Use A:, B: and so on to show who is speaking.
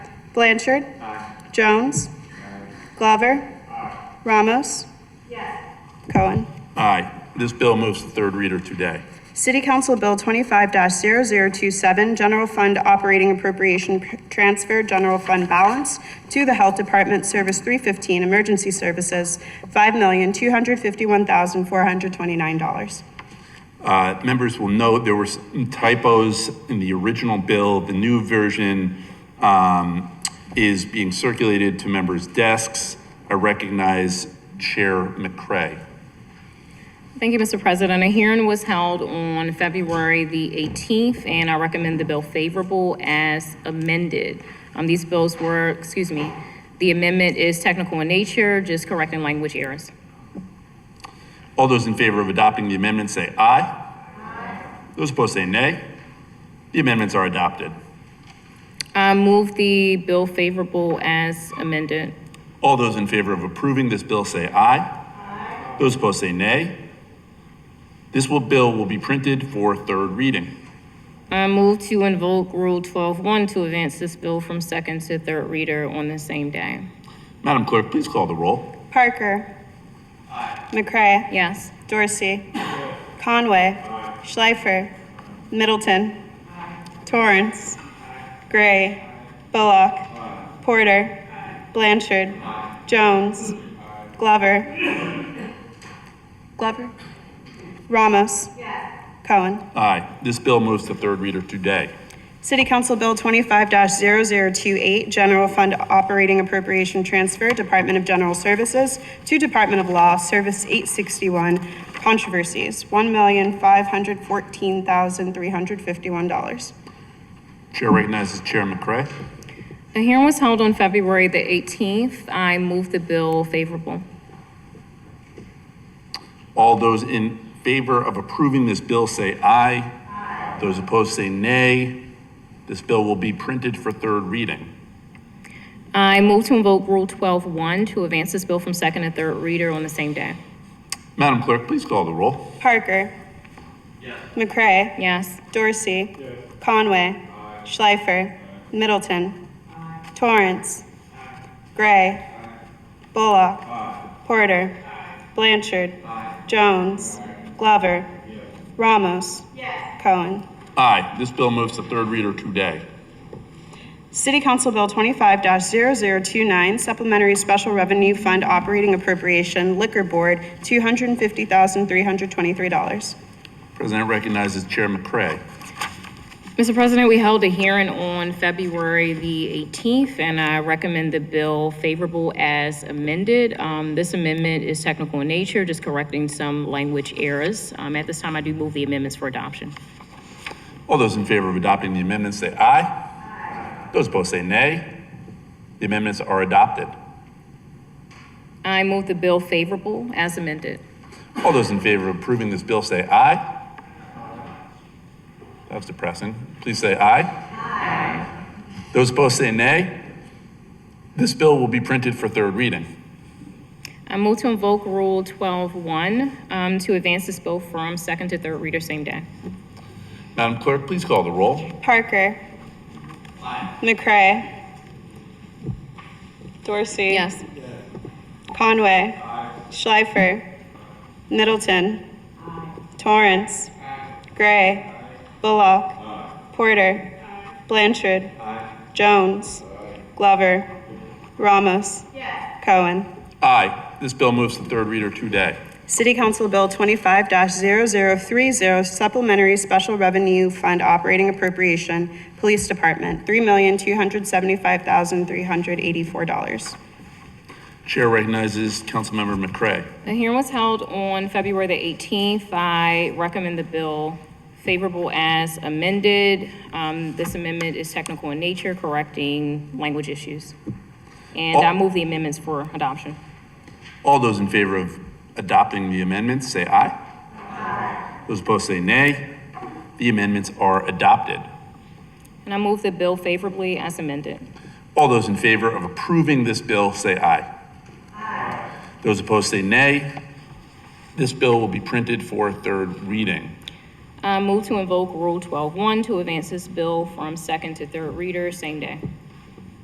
A: Blanchard. Jones. Glover. Ramos. Cohen.
B: Aye. This bill moves to third reader today.
A: City Council Bill twenty-five 27 General Fund Operating Appropriation Pr- Transfer General Fund Balance to the Health Department Service three fifteen Emergency Services, five million, two hundred fifty-one thousand, four hundred twenty-nine dollars.
B: Uh, Members will note there were some typos in the original bill. The new version um, is being circulated to members' desks. I recognize Chair McCray.
C: Thank you, Mr. President. A hearing was held on February the 18th, and I recommend the bill favorable as amended. Um, These bills were, excuse me, the amendment is technical in nature, just correcting language errors.
B: All those in favor of adopting the amendment say aye. Those opposed say nay. The amendments are adopted.
C: I move the bill favorable as amended.
B: All those in favor of approving this bill say aye. Those opposed say nay. This will, bill will be printed for third reading.
C: I move to invoke Rule 12-1 to advance this bill from second to third reader on the same day.
B: Madam Clerk, please call the roll.
A: Parker. McCray.
C: Yes.
A: Dorsey. Conway. Schleifer. Middleton. Torrance. Gray. Bullock. Porter. Blanchard. Jones. Glover. Glover. Ramos. Cohen.
B: Aye. This bill moves to third reader today.
A: City Council Bill twenty-five 28 General Fund Operating Appropriation Transfer, Department of General Services to Department of Law, Service eight sixty-one, Controversies, one million five hundred fourteen thousand three hundred fifty-one dollars.
B: Chair recognizes Chair McCray.
C: A hearing was held on February the 18th. I move the bill favorable.
B: All those in favor of approving this bill say aye. Those opposed say nay. This bill will be printed for third reading.
C: I move to invoke Rule 12-1 to advance this bill from second and third reader on the same day.
B: Madam Clerk, please call the roll.
A: Parker. McCray.
C: Yes.
A: Dorsey. Conway. Schleifer. Middleton. Torrance. Gray. Bullock. Porter. Blanchard. Jones. Glover. Ramos. Cohen.
B: Aye. This bill moves to third reader today.
A: City Council Bill twenty-five 29 Supplementary Special Revenue Fund Operating Appropriation Liquor Board, two hundred and fifty thousand, three hundred twenty-three dollars.
B: President recognizes Chair McCray.
C: Mr. President, we held a hearing on February the 18th, and I recommend the bill favorable as amended. Um, This amendment is technical in nature, just correcting some language errors. Um, At this time, I do move the amendments for adoption.
B: All those in favor of adopting the amendments say aye. Those opposed say nay. The amendments are adopted.
C: I move the bill favorable as amended.
B: All those in favor of approving this bill say aye. That was depressing. Please say aye. Aye. Those opposed say nay. This bill will be printed for third reading.
C: I move to invoke Uh, Rule 12-1 um, to advance this bill from second to third reader same day.
B: Madam Clerk, please call the roll.
A: Parker. McCray. Dorsey.
C: Yes.
A: Conway. Schleifer. Middleton. Torrance. Gray. Bullock. Porter. Blanchard. Jones. Glover. Ramos. Cohen.
B: Aye. This bill moves to third reader today.
A: City Council Bill twenty-five 30 Supplementary Special Revenue Fund Operating Appropriation, Police Department, three million, two hundred seventy-five thousand, three hundred eighty-four dollars.
B: Chair recognizes Councilmember McCray.
C: The hearing was held on February the 18th. I recommend the bill favorable as amended. Um, This amendment is technical in nature, correcting language issues. And I
B: All-
C: move the amendments for adoption.
B: All those in favor of adopting the amendments, say aye. Aye. Those opposed say nay. The amendments are adopted.
C: And I move the bill favorably as amended.
B: All those in favor of approving this bill, say aye. Aye. Those opposed say nay. This bill will be printed for third reading.
C: I move to invoke Rule 12-1 to advance this bill from second to third reader same day.